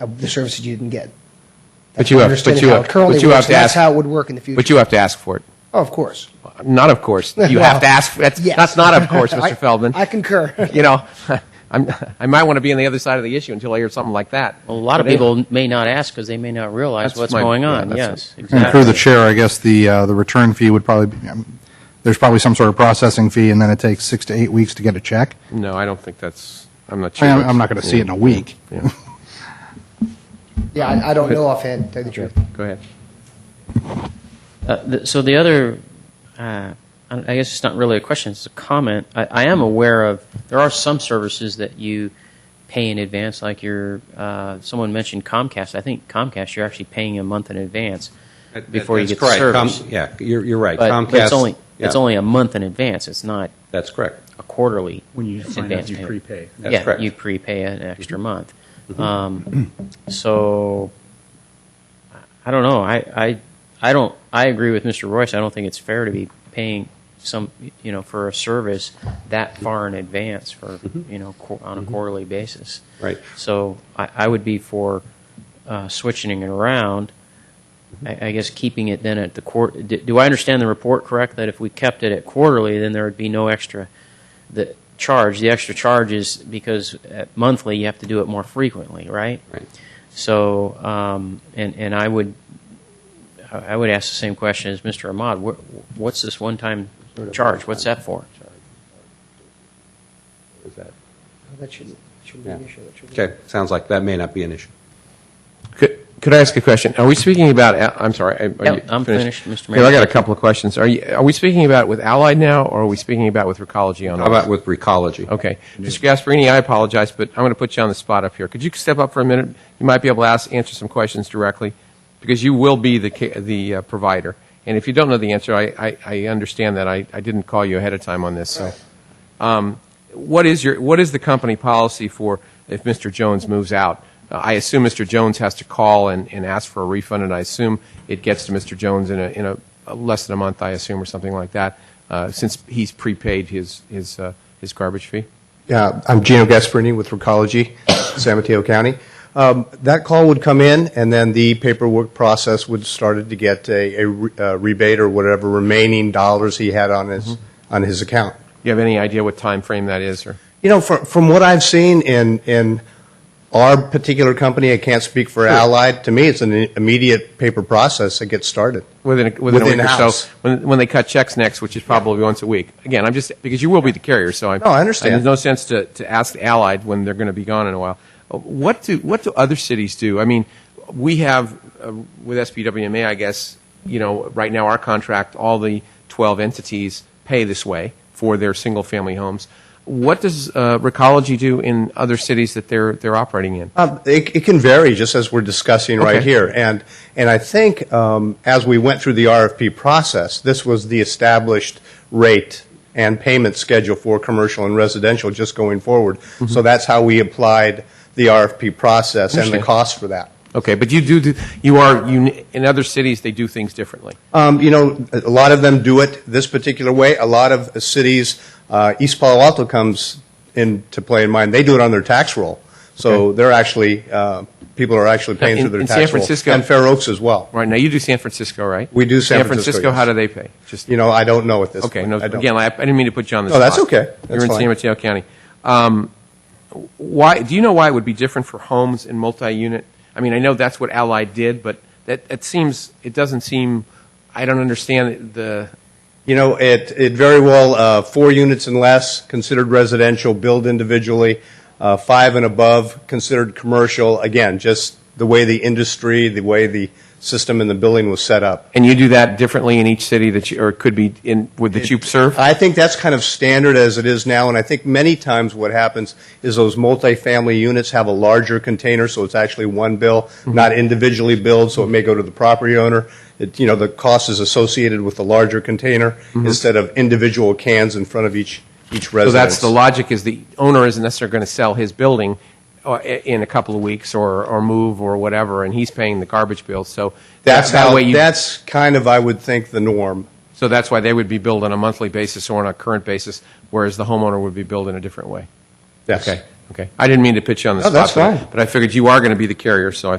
of the services you didn't get. But you have- but Understanding you how have- it currently but you have works, to and ask- That's how it would work in the future. But you have to ask for it. Oh, of course. Not of course. You have to Well, ask. That's, yes. that's not of course, I- Mr. Feldman. I concur. you know, I'm, I might want to be on the other side of the issue until I hear something like that. A lot of But anyway, people may not ask because they may not realize That's what's my- going yeah, on. that's yes, it. And through the chair, I guess the, uh, the return fee would probably, be um, there's probably some sort of processing fee, and then it takes six to eight weeks to get a check. No, I don't think that's. I'm not sure. I'm, that's- I'm not going to see it in a week. Yeah. Yeah, I, I don't know offhand, to tell you the truth. Go ahead. Uh, the, so the other, uh, I I guess it's not really a question; it's a comment. I, I am aware of there are some services that you pay in advance, like your. Uh, someone mentioned Comcast. I think Comcast, you're actually paying a month in advance That- before you that's get the correct. service. Com- Yeah, you're, you're right. but, Comcast. but it's only yeah, it's only a month in advance. It's not That's correct. a quarterly When you sign up, advance you payment. prepay. Mm-hmm. That's yeah, correct. you prepay an extra month. Um, so I don't know. I, I I don't. I agree with Mr. Royce. I don't think it's fair to be paying some you know for a service that far in advance for Mm-hmm. you know qu- on a quarterly basis. Right. So I, I would be for uh, switching it around. I, I guess keeping it then at the court. Do, do I understand the report correct that if we kept it at quarterly, then there would be no extra the charge. The extra charge is because at monthly you have to do it more frequently, right? Right. So, um, and and I would I I would ask the same question as Mr. Ahmad. What, what's this one-time charge? What's that for? Is that- That shouldn't, shouldn't be be an an Yeah. issue. Okay, sounds like that may not be an issue. Could, could I ask a question? Are we speaking about? Al- I'm sorry. I- are Yeah, you I'm finished, Mr. Here, I Mayor. got a couple of questions. Are you? Are we speaking about with Allied now, or are we speaking about with Recology on? How about with recology? Okay. Mr. Gasparini, I apologize, but I'm going to put you on the spot up here. Could you step up for a minute? You might be able to ask, answer some questions directly, because you will be the, ca- the uh, provider. And if you don't know the answer, I, I, I understand that. I, I didn't call you ahead of time on this, so. Um, what is your, what is the company policy for if Mr. Jones moves out? Uh, I assume Mr. Jones has to call and, and ask for a refund, and I assume it gets to Mr. Jones in a, in a, a less than a month, I assume, or something like that, uh, since he's prepaid his, his, uh, his garbage fee? Uh, I'm Gino Gasparini with Recology, San Mateo County. Um, That call would come in, and then the paperwork process would started to get a a re- uh, rebate or whatever remaining dollars he had on his, on his account. You have any idea what time frame that is, or? You know, from, from what I've seen in, in our particular company, I can't speak for Allied, to me, it's an i- immediate paper process that gets started. Within a, within, a week or hours. so, when, when they cut checks next, which is probably once a week. Again, I'm just because you will be the carrier, so I, No, I understand. There's no sense to, to ask Allied when they're going to be gone in a while. Uh, What do what do other cities do? I mean, we have uh, with SBWMA, I guess you know right now our contract, all the 12 entities pay this way for their single family homes. What does uh, Recology do in other cities that they're they're operating in? Um, it, it can vary, just as we're discussing right Okay. here. And and I think um, as we went through the RFP process, this was the established rate and payment schedule for commercial and residential just going forward. So that's how we applied the RFP process and the Understand. cost for that. Okay, but you do, do you are you, in other cities they do things differently. Um, you know, a lot of them do it this particular way. A lot of cities, uh, East Palo Alto comes into play in mind. They do it on their tax roll. So Okay. they're actually, uh, people are actually paying In- through their in tax San roll. Francisco- And Fair Oaks as well. Right now, you do San Francisco, right? We do San Francisco, yes. how do they pay? Just You know, I don't know at this okay. point. No, I don't. again, I, I didn't mean to put you on the No, spot. that's okay. You're That's in San fine. Mateo County. Um, why? Do you know why it would be different for homes and multi-unit? I mean, I know that's what Allied did, but that it seems it doesn't seem. I don't understand the. You know, it, it very well, uh, four units and less considered residential, billed individually, uh, five and above considered commercial. Again, just the way the industry, the way the system and the billing was set up. And you do that differently in each city that you, or it could be in would that you serve. I think that's kind of standard as it is now, and I think many times what happens is those multifamily units have a larger container, so it's actually one bill, not individually billed, so it may go to the property owner. It, you know, the cost is associated with the larger container instead of individual cans in front of each each So residence. that's the logic: is the owner isn't necessarily going to sell his building uh, in a couple of weeks or or move or whatever, and he's paying the garbage bill. So That's that how. way you, that's kind of I would think the norm. So that's why they would be billed on a monthly basis or on a current basis, whereas the homeowner would be billed in a different way. Yes. Okay. Okay. I didn't mean to put you on the No, spot. that's but- fine. But I figured you are going to be the carrier, so I